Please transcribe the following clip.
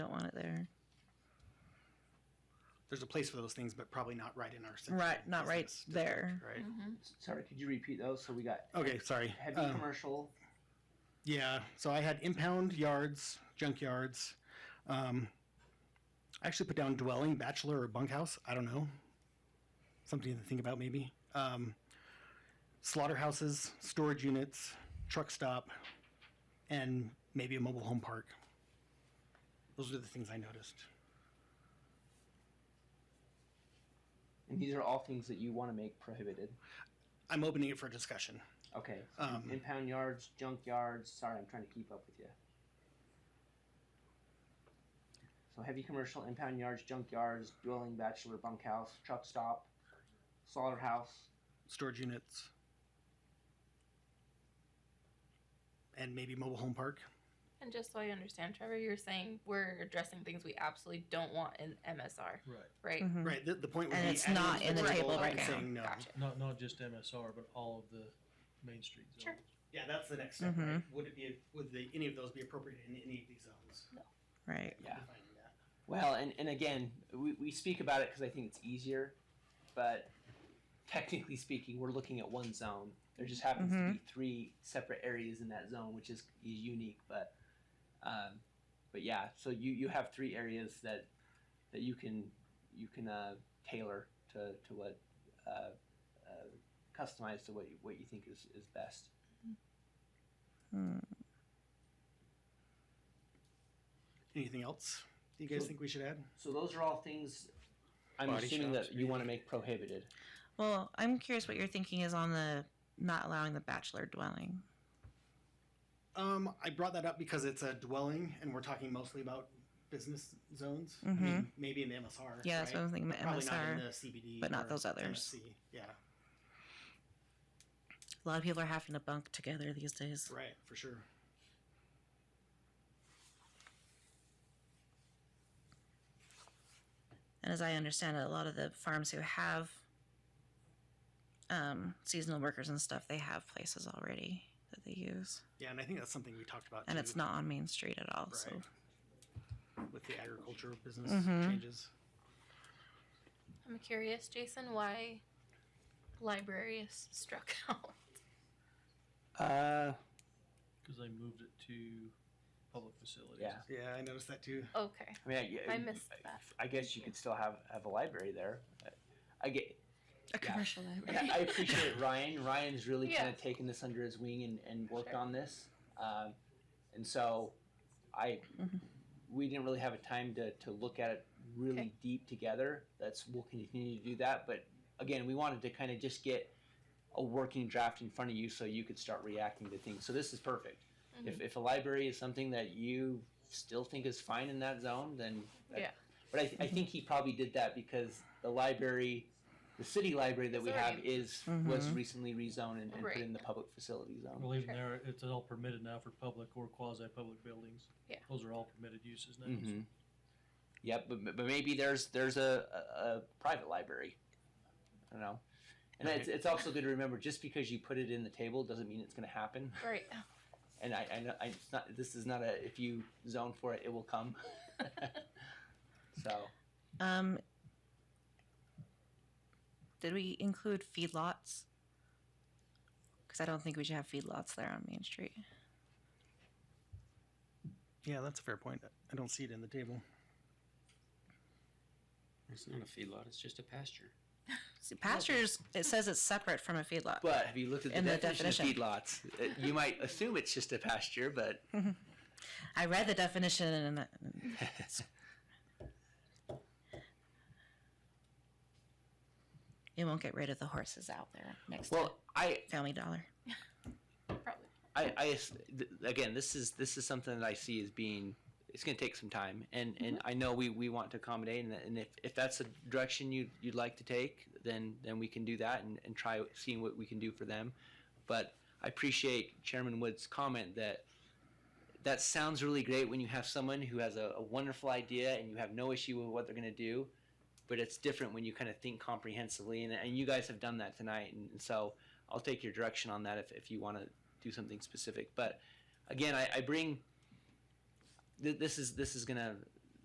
there's a place for those things, but probably not right in our central Right, not right business there. Mm-hmm. district, Right. Mm-hmm. Sorry, could you repeat those? So we got Okay, sorry. heavy Um, commercial. Yeah, so I had impound yards, junkyards. Um, I actually put down dwelling, bachelor, or bunkhouse. I don't know. Something to think about, maybe. Um, slaughterhouses, storage units, truck stop, and maybe a mobile home park. Those are the things I noticed. And these are all things that you want to make prohibited. I'm opening it for discussion. Okay. so Um, impound yards, junk yards. Sorry, I'm trying to keep up with you. So heavy commercial, impound yards, junk yards, dwelling, bachelor, bunkhouse, truck stop, slaughterhouse. Storage units, and maybe mobile home park. And just so I understand, Trevor, you're saying we're addressing things we absolutely don't want in MSR, Right. right? Mhm. Right. The, the point would And be it's adding not it to in the table and right now. saying no. Gotcha. Not not just MSR, but all of the Main Street zones. Sure. Yeah, that's the next step, step, right? right? Would it be, would the, any of those be appropriate in any of these zones? Right. Yeah. Well, and, and again, we, we speak about it because I think it's easier, but technically speaking, we're looking at one zone. There just happens to be three separate areas in that zone, which is, is unique. But um, but yeah, so you, you have three areas that that you can you can uh, tailor to, to what uh, uh, customize to what you, what you think is, is best. Hmm. Anything else do you guys think we should add? So those are all things I'm Body assuming shops, that you want to make prohibited. Well, I'm curious what your thinking is on the not allowing the bachelor dwelling. Um, I brought that up because it's a dwelling and we're talking mostly about business zones. I mean, Mhm. maybe in the MSR. Yeah, that's what right? I'm thinking. The Probably not in MSR. the CBD. but not or those others. MSC. Yeah, A lot of people are having to bunk together these days. right, for sure. And as I understand it, a lot of the farms who have um, seasonal workers and stuff, they have places already that they use. Yeah, and I think that's something we talked about. And too, it's not on Main Street at all. So With the agricultural business Mhm. changes. I'm curious, Jason, why library is struck out. Uh, Because they moved it to public facilities. Yeah. Yeah, I noticed that too. Okay, I mean, I, I missed that. I guess you could still have, have a library there. I get. a commercial and I I appreciate Ryan. Ryan's really Yeah. kind of taken this under his wing and, and worked Sure. on this. Um, and so, I Mm-hmm. Mhm. we didn't really have a time to, to look at it really Okay. deep together. That's we'll continue to do that. But again, we wanted to kind of just get a working draft in front of you so you could start reacting to things. So this is perfect. Mm-hmm. If, if a library is something that you still think is fine in that zone, then that- Yeah. But I, th- I think he probably did that because the library, the city library that we have Sorry. is was Mhm. recently rezoned and, and Right. put in the public facility zone. Well, even Sure. there, it's all permitted now for public or quasi-public buildings. Yeah. Those are all permitted uses now. hmm Yep, but, but- but maybe there's there's a, a, a private library. I don't know. And it's, it's also good to remember just because you put it in the table doesn't mean it's going to happen. right. And I, I know I, it's not this is not a if you zone for it it will come. so Um, did we include feedlots? Because I don't think we should have feedlots there on Main Street. Yeah, that's a fair point. I don't see it in the table. It's not a feedlot, it's just a pasture. See, pastures, it says it's separate from a feedlot. But have you looked at the, And the definition, definition. of feedlots? It- you might assume it's just a pasture, but I read the definition and and it won't get rid of the horses out there next well, I, to Family Dollar. Probably. I, I as- th- again, this is this is something that I see as being it's going to take some time, and and I know we we want to accommodate, and, and if, if that's the direction you you'd like to take, then then we can do that and and try seeing what we can do for them, but I appreciate Chairman Wood's comment that. That sounds really great when you have someone who has a, a wonderful idea and you have no issue with what they're going to do, but it's different when you kind of think comprehensively. And, and you guys have done that tonight, and, and so I'll take your direction on that if, if you want to do something specific. But again, I, I bring th- this is this is gonna